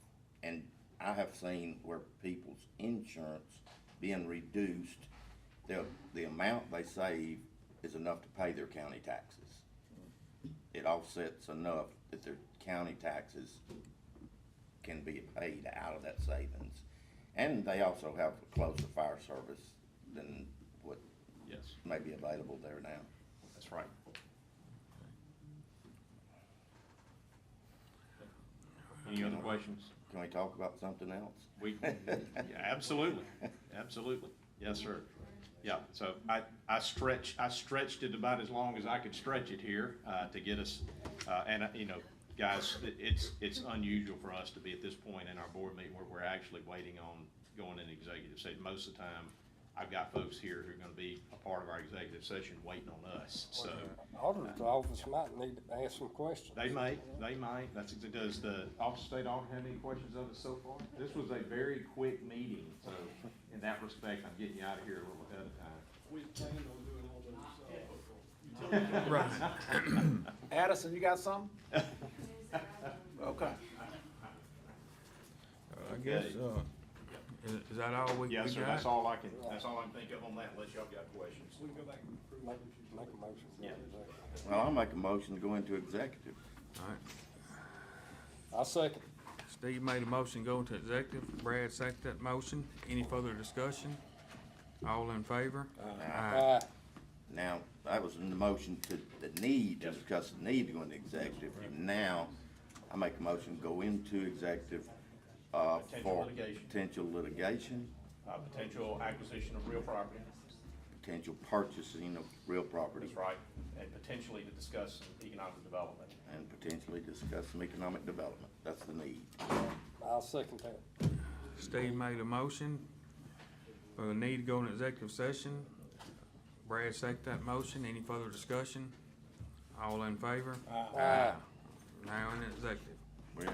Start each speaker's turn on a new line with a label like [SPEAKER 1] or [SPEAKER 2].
[SPEAKER 1] I have seen where people's insurance being reduced, the, the amount they save is enough to pay their county taxes. It offsets enough that their county taxes can be paid out of that savings. And they also have a closer fire service than what
[SPEAKER 2] Yes,
[SPEAKER 1] may be available there now.
[SPEAKER 2] that's right. Any other questions?
[SPEAKER 1] Can we talk about something else?
[SPEAKER 2] We, yeah, absolutely, absolutely. Yes, sir. Yeah, so I, I stretch, I stretched it about as long as I could stretch it here, uh, to get us, uh, and, uh, you know, guys, it- it's, it's unusual for us to be at this point in our board meeting where we're actually waiting on going in executive session. Most of the time, I've got folks here who are gonna be a part of our executive session waiting on us, so.
[SPEAKER 3] uh, Auditor's office might need to ask some questions.
[SPEAKER 2] They might, they might. That's, exa- does the Office of State Auditor have any questions of us so far? This was a very quick meeting, so in that respect, I'm getting you out of here a little ahead of time.
[SPEAKER 4] We planned on doing all those, uh,
[SPEAKER 5] Addison, you got something? Okay.
[SPEAKER 6] I guess, uh, is, is that all we, we got?
[SPEAKER 2] Yes, sir, that's all I can, that's all I can think of on that unless y'all got questions.
[SPEAKER 4] we can go back and approve.
[SPEAKER 3] Make, make a motion. for
[SPEAKER 2] Yeah.
[SPEAKER 3] executive.
[SPEAKER 1] Well, I'll make a motion to go into executive.
[SPEAKER 6] All right.
[SPEAKER 3] I second.
[SPEAKER 6] Steve made a motion to go into executive, Brad seconded that motion. Any further discussion? All in favor? Aye.
[SPEAKER 3] Aye.
[SPEAKER 1] Now, that was in the motion to the need, to discuss the need to go into executive. Now, I make a motion to go into executive, uh,
[SPEAKER 2] Potential
[SPEAKER 1] for
[SPEAKER 2] litigation.
[SPEAKER 1] potential litigation,
[SPEAKER 2] Uh, potential acquisition of real property,
[SPEAKER 1] potential purchasing of real property,
[SPEAKER 2] that's right, and potentially to discuss economic development.
[SPEAKER 1] and potentially discuss some economic development. That's the need.
[SPEAKER 3] I'll second that.
[SPEAKER 6] Steve made a motion for the need to go into executive session. Brad seconded that motion. Any further discussion? All in favor?
[SPEAKER 3] Aye.
[SPEAKER 6] Now in executive.